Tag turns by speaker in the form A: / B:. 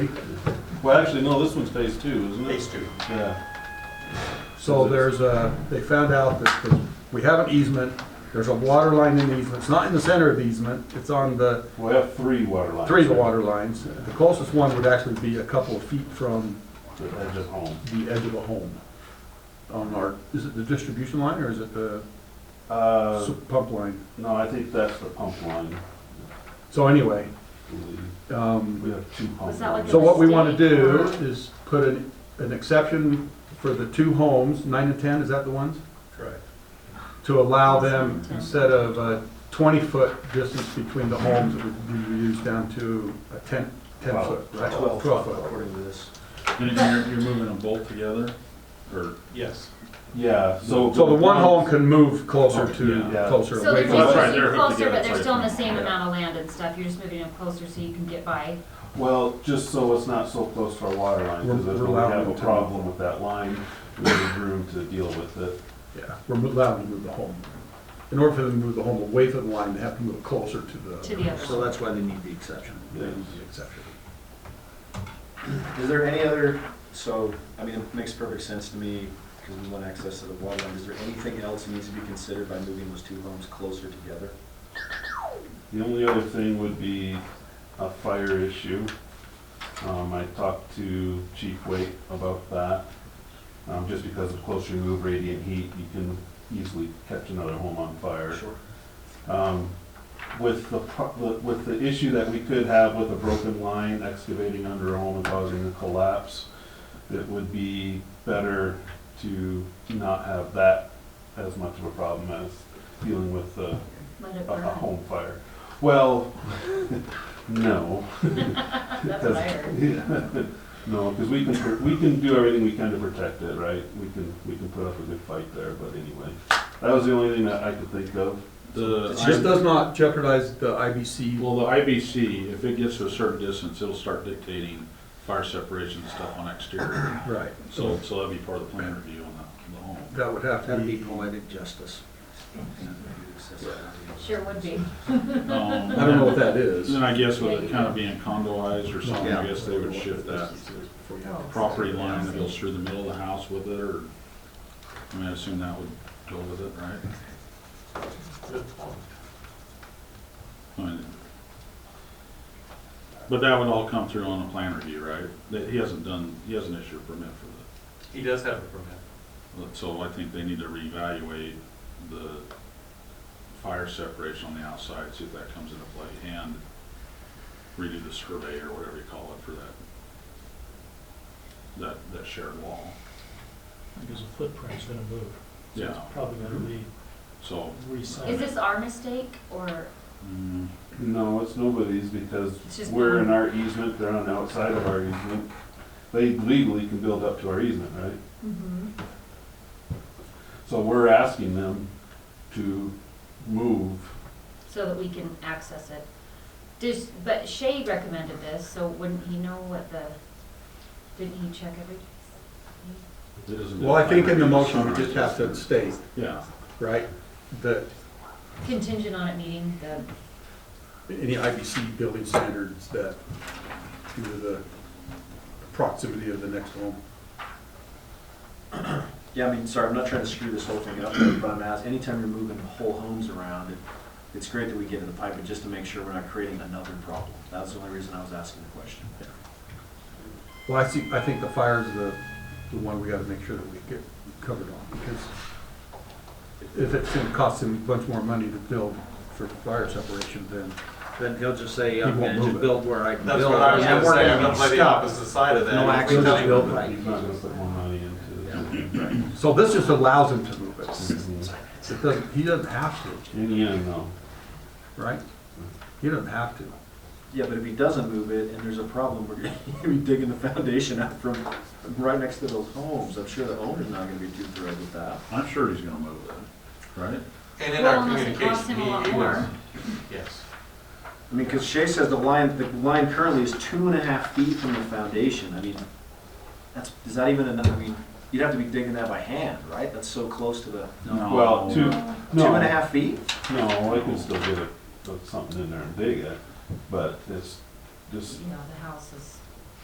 A: Well, actually, no, this one's phase two, isn't it?
B: Phase two.
A: Yeah,
C: So there's a, they found out that the- we have an easement, there's a water line in the easement, it's not in the center of the easement, it's on the,
A: we have three water lines.
C: three of the water lines. The closest one would actually be a couple of feet from
A: The edge of home.
C: the edge of a home. On our, is it the distribution line or is it the
A: Uh,
C: s- pump line?
A: no, I think that's the pump line.
C: So anyway,
A: I believe.
C: um,
A: We have two pump
D: Was that like
A: lines.
C: so what we wanna do is put an, an exception for the two homes, nine and ten, is that the ones?
B: Correct.
C: to allow them, instead of a 20-foot distance between the homes, it would be reduced down to a 10, 10-foot, right?
B: Twelve,
C: 12-foot.
B: according to this.
E: And you're, you're moving them both together, or?
B: Yes.
A: Yeah, so.
C: So the one home can move closer to,
A: Yeah.
C: closer.
D: So they're
C: away
E: Wait,
D: just
C: from
E: that's right,
C: the-
D: moving
E: they're hooked
D: closer,
E: together,
D: but they're
E: sorry.
D: still in the same
A: Yeah.
D: amount of land and stuff, you're just moving them closer so you can get by.
A: Well, just so it's not so close to our water line, because
C: We're-
A: if
C: we're
A: we
C: allowing
A: have a
C: them to-
A: problem with that line, we have room to deal with it.
C: Yeah, we're allowed to move the home. In order for them to move the home away from the line, they have to move closer to the.
D: To the other
C: So that's why they need the exception. They
A: Yeah.
C: need the exception.
B: Is there any other, so, I mean, it makes perfect sense to me, because we want access to the water line. Is there anything else that needs to be considered by moving those two homes closer together?
A: The only other thing would be a fire issue. Um, I talked to Chief Waite about that. Um, just because of close remove radiant heat, you can easily catch another home on fire.
B: Sure.
A: Um, With the, pro- the- with the issue that we could have with a broken line excavating under a home and causing a collapse, it would be better to not have that as much of a problem as dealing with a,
D: Let it
A: a a
D: burn.
A: home fire. Well, no.
D: That's what I heard.
A: No, because we can, pr- we can do everything we can to protect it, right? We can, we can put up a good fight there, but anyway. That was the only thing that I could think of.
E: The,
C: This
E: I-
C: does not jeopardize the IBC.
E: well, the IBC, if it gets to a certain distance, it'll start dictating fire separation and stuff on exterior.
C: Right.
E: So, so that'd be part of the plan review on the, the home.
C: That would have to
F: That'd be
C: be,
F: poetic justice.
D: Sure would be.
E: Um,
C: I don't know what that is.
E: Then I guess with it kind of being condoized or something, I
F: Yeah.
E: guess they would shift that property line that goes through the middle of the house with it, or, I mean, I assume that would go with it, right? I mean, But that would all come through on a plan review, right? That he hasn't done, he hasn't issued a permit for
G: He does have a permit.
E: that. So I think they need to reevaluate the fire separation on the outside, see if that comes into play, and redo the survey or whatever you call it for that, that, that shared wall.
G: Because the footprint's gonna move. So
E: Yeah,
G: it's Probably gonna be
E: so,
D: Is
G: re-signed.
D: this our mistake or,
E: mm,
A: No, it's nobody's because
D: It's just
A: we're
D: mine.
A: in our easement, they're on the outside of our easement. They legally can build up to our easement, right?
D: Mhm.
A: So we're asking them to move.
D: so that we can access it? Does, but Shay recommended this, so wouldn't he know what the, didn't he check every?
E: it isn't.
C: well, I think in the motion, we just have to state,
E: Yeah,
C: right, that
D: Contingent on it meeting the,
C: any IBC building standards that, due to the proximity of the next home.
B: Yeah, I mean, sorry, I'm not trying to screw this whole thing up, but I'm asking, anytime you're moving whole homes around, it- it's great that we get in the pipe, but just to make sure we're not creating another problem. That's the only reason I was asking the question.
C: Well, I see, I think the fire's the, the one we gotta make sure that we get covered on, because if it's gonna cost him a bunch more money to build for fire separation, then
F: Then he'll just say, I'm
C: He won't
F: gonna
C: move it.
F: just build where I can build.
G: That's what I was
F: And
G: gonna
F: we're
G: say,
F: not
G: I'm gonna
F: gonna
G: play the
F: stop.
G: opposite side of that.
F: No
A: He's
F: action,
A: not
F: just build
A: gonna
F: right.
A: put more money into
C: So this just allows him to move it.
A: it.
C: It doesn't, he doesn't have to,
A: In the end, no.
C: right? He doesn't have to.
B: Yeah, but if he doesn't move it and there's a problem, we're gonna be digging the foundation out from right next to those homes. I'm sure the owner's not gonna be too thrilled with that.
E: I'm sure he's gonna move it, right?
G: And in
D: well,
G: our
D: unless it costs
G: communication,
D: him a
G: he,
D: lot
G: he was,
D: more.
G: yes.
B: I mean, because Shay says the line, the line currently is two and a half feet from the foundation. I mean, that's, is that even enough? I mean, you'd have to be digging that by hand, right? That's so close to the,
E: No.
A: Well, two,
B: two and a
A: no,
B: half feet?
A: no, I can still get a- put something in there and dig it, but it's just
D: You know, the house is